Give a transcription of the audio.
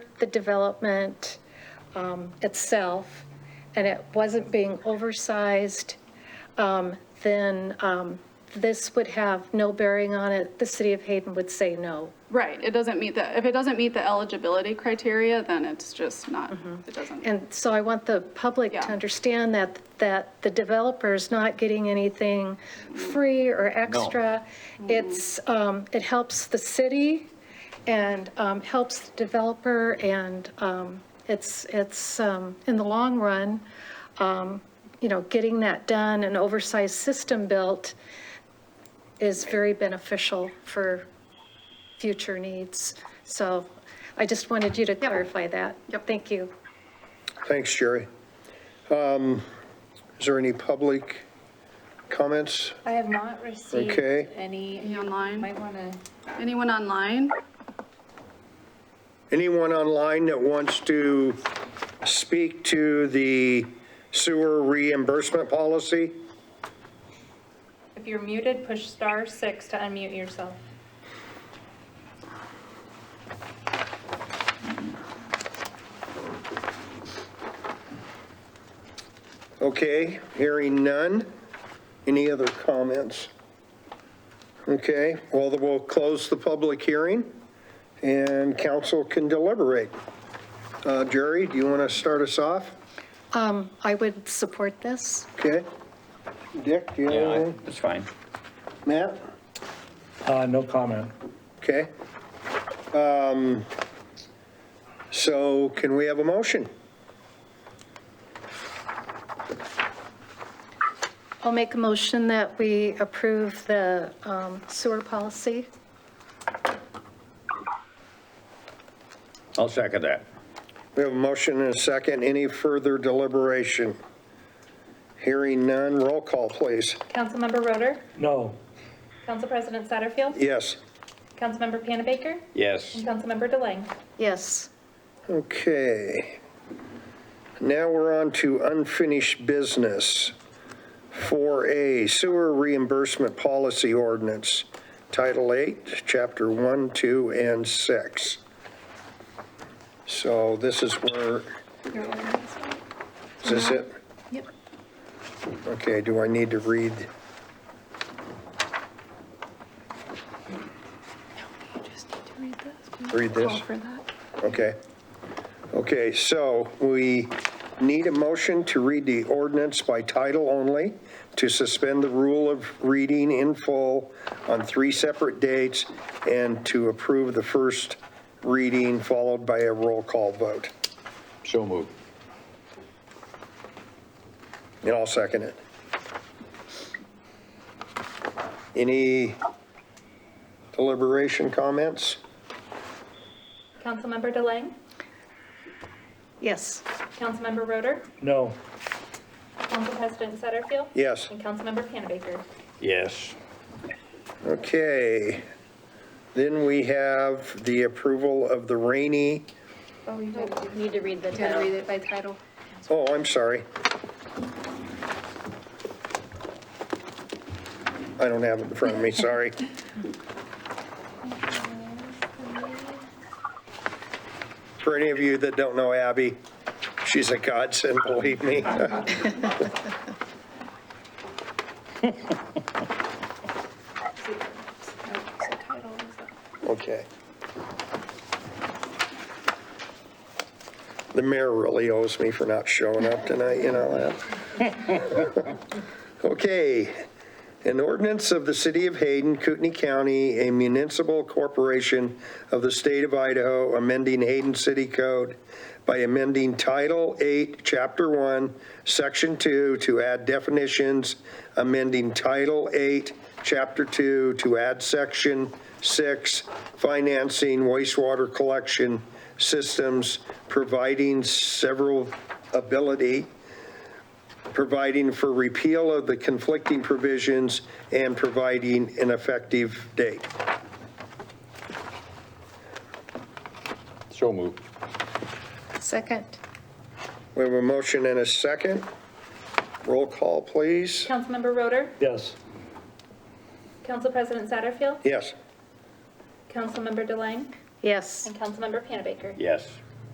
the development um, itself, and it wasn't being oversized, um, then um, this would have no bearing on it. The city of Hayden would say no. Right, it doesn't meet the, if it doesn't meet the eligibility criteria, then it's just not, it doesn't. And so I want the public to Yeah. understand that, that the developer's not getting anything free or extra. It's, um, it helps the city and, um, helps the developer and, um, it's, it's, um, in the long run, um, you know, getting that done, an oversized system built is very beneficial for future needs. So I just wanted you to clarify that. Yep. Thank you. Thanks, Jerry. Um, Is there any public comments? I have not received Okay. any. Any online? Might want to, Anyone online? Anyone online that wants to speak to the sewer reimbursement policy? if you're muted, push star six to unmute yourself. Okay, hearing none. Any other comments? Okay, well, then we'll close the public hearing and council can deliberate. Uh, Jerry, do you want to start us off? Um, I would support this. Okay? Dick, do you have Yeah, anything? that's fine. Matt? Uh, no comment. Okay. Um, So can we have a motion? I'll make a motion that we approve the um, sewer policy. I'll second that. We have a motion and a second. Any further deliberation? Hearing none, roll call, please. Councilmember Roder, No. Council President Satterfield, Yes. Councilmember Panabaker, Yes, and Councilmember Deleng. Yes. Okay. Now we're on to unfinished business. 4A Sewer Reimbursement Policy Ordinance, Title 8, Chapter 1, 2, and 6. So this is where, is this it? Yep. Okay, do I need to read? Read this? Okay. Okay, so we need a motion to read the ordinance by title only, to suspend the rule of reading in full on three separate dates, and to approve the first reading followed by a roll call vote. So moved. And I'll second it. Any deliberation comments? Councilmember Deleng, Yes. Councilmember Roder, No. Council President Satterfield. Yes. And Councilmember Panabaker. yes. Okay, then we have the approval of the rainy. Need to read the title. read it by title. Oh, I'm sorry. I don't have it in front of me, sorry. For any of you that don't know Abby, she's a godsend, believe me. Okay. The mayor really owes me for not showing up tonight, you know that? Okay. An ordinance of the City of Hayden, Kootenai County, a municipal corporation of the state of Idaho, amending Hayden City Code by amending Title 8, Chapter 1, Section 2 to add definitions, amending Title 8, Chapter 2 to add Section 6, financing wastewater collection systems, providing several ability providing for repeal of the conflicting provisions and providing an effective date. So moved. Second. We have a motion and a second. Roll call, please. Councilmember Roder, Yes. Council President Satterfield, Yes. Councilmember Deleng, Yes. and Councilmember Panabaker. Yes.